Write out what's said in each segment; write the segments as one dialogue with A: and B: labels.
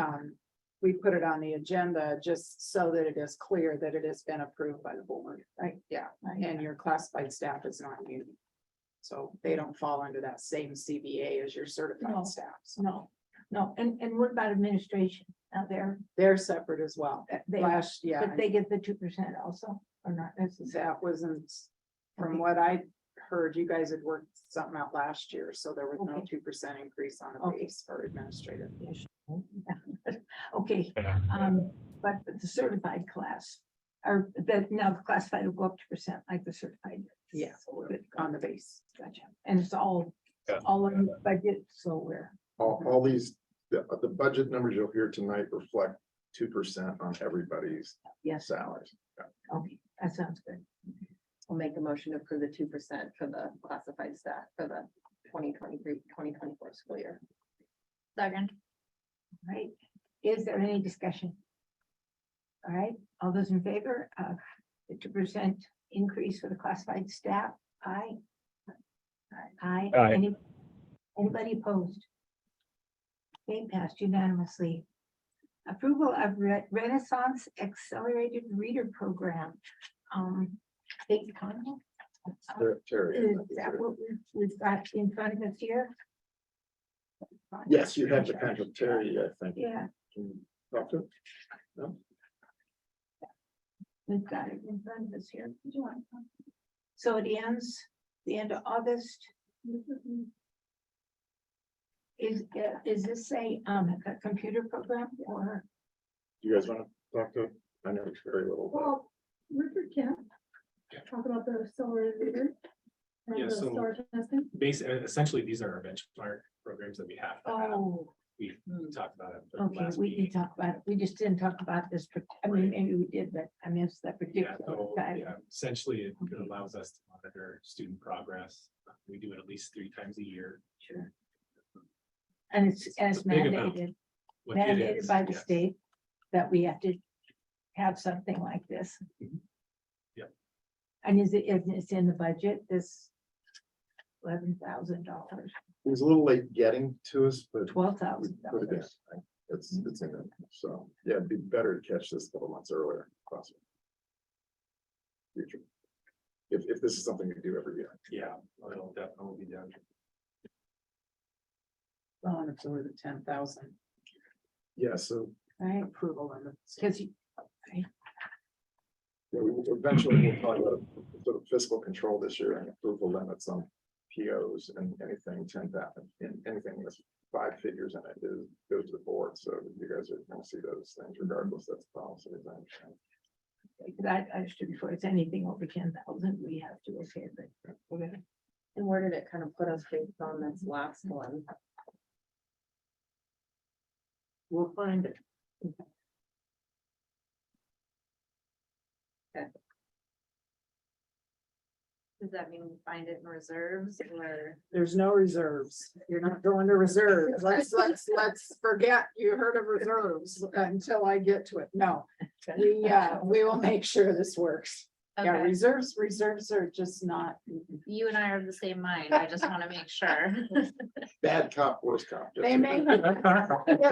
A: um, we put it on the agenda just so that it is clear that it has been approved by the board, right? Yeah, and your classified staff is not union. So they don't fall under that same CBA as your
B: No.
A: certified staff. So
B: No, no, and, and what about administration out there?
A: They're separate as well.
B: That They,
A: Last, yeah,
B: but they get the two percent also, or not necessarily?
A: that wasn't,
B: Okay.
A: from what I heard, you guys had worked something out last year, so there was no
B: Okay.
A: two percent increase on a
B: Okay.
A: base for administrative.
B: Okay,
C: Yeah.
B: um, but the certified class, or that now the classified will go up two percent like the certified.
A: Yeah,
B: Good,
A: on the base.
B: Gotcha, and it's all,
C: Yeah.
B: all in the budget, so we're,
D: All, all these, the, the budget numbers you'll hear tonight reflect two percent on everybody's
B: yes,
D: salaries.
B: okay, that sounds good.
E: I'll make a motion to approve the two percent for the classified staff for the 2023-2024 school year.
B: Second. Right, is there any discussion? All right, all those in favor of the two percent increase for the classified staff, aye? Aye.
C: Aye.
B: Any- Anybody opposed? They passed unanimously. Approval of Re- Renaissance Accelerated Reader Program. Um, big comment.
D: Ter- Terry.
B: Is that what we've, we've got in front of us here?
D: Yes, you have the contract, Terry, I think.
B: Yeah.
D: Can you talk to him?
B: We've got it in front of us here. Do you want to- So it ends the end of August. Is, is this a, um, a computer program or?
D: You guys wanna talk to, him? I know it's very little. but-
F: Well, Richard can talk about the accelerated reader.
G: Yeah,
F: And the
G: so-
F: star testing.
G: basically, uh, essentially, these are our benchmark programs that we have. to have. We talked about it. the
B: Oh. Okay,
G: last
B: we can
G: meeting.
B: talk about it. We just didn't talk about this. par- I mean, maybe we did, but I missed that
G: Yeah,
B: particular
G: so,
B: time.
G: yeah, essentially, it
B: Okay.
G: allows us to monitor student progress. We do it at least three times a year.
B: Sure. And it's, and it's
G: It's a big amount.
B: mandated,
G: What it
B: mandated
G: is,
B: by the
G: yes.
B: state that we have to have something like this.
G: Mhm. Yep.
B: And is it, is it in the budget, this eleven thousand dollars,
D: He was a little late getting to us, but.
B: twelve
D: we
B: thousand
D: put it in.
B: dollars?
D: It's, it's in there, so, yeah, it'd be better to catch this a couple months earlier. if possible. Future. If, if this is something you do every year.
G: Yeah, it'll definitely be done.
A: Well, and it's over the ten thousand
D: Yeah, so
B: Right,
A: approval on the.
B: because
D: Yeah, we will- eventually we'll talk about sort of fiscal control this year and approval limits on POs and anything ten thousand, and anything that's five figures in it is, goes to the board, so you guys are gonna see those things regardless, that's policy. as I understand.
B: I, I understood before, it's anything over ten thousand, we have to, okay, but we're gonna,
E: And where did it kind of put us based on this last one?
B: we'll find it.
E: Does that mean find it in reserves or?
A: There's no reserves. You're not going to reserves. Let's, let's, let's forget you heard of reserves until I get to it. No. We, uh, we will make sure this works. Yeah,
H: Okay,
A: reserves, reserves are just not,
H: you and I are of the same mind. I just want to make sure.
D: Bad cop, worst cop. just-
A: they may, it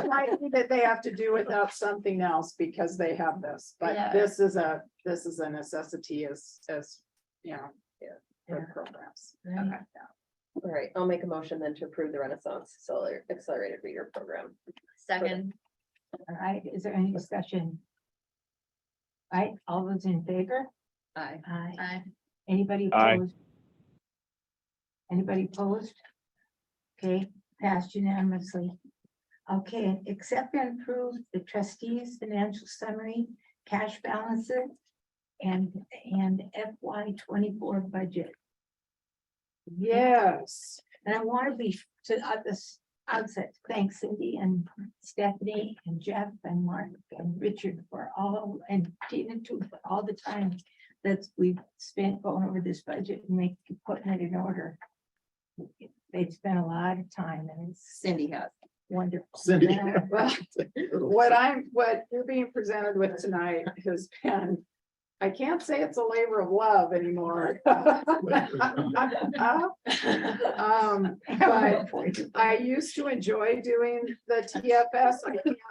A: might be that they have to do without something else because they have this. But
H: Yeah.
A: this is a, this is a necessity as, as, you know,
B: Yeah.
A: for programs.
B: Right.
E: All right, I'll make a motion then to approve the Renaissance Acceler- Accelerated Reader Program.
H: Second,
B: All right, is there any discussion? Right, all those in favor?
E: Aye.
B: Aye.
H: I,
B: Anybody
C: Aye.
B: opposed? Anybody opposed? Okay, passed unanimously. Okay, accept and approve the trustees' financial summary, cash balances, and, and FY twenty-four budget.
A: Yes.
B: And I want to be to at this outset, thanks Cindy and Stephanie and Jeff and Mark and Richard for all and Tina too, for all the time that we've spent going over this budget and make putting it in order. They've spent a lot of time and it's
E: Cindy has.
B: wonderful.
D: Cindy.
A: Well, What I'm, what you're being presented with tonight has been, I can't say it's a labor of love anymore. Um,
B: I
A: I used to enjoy doing the TFS. I can't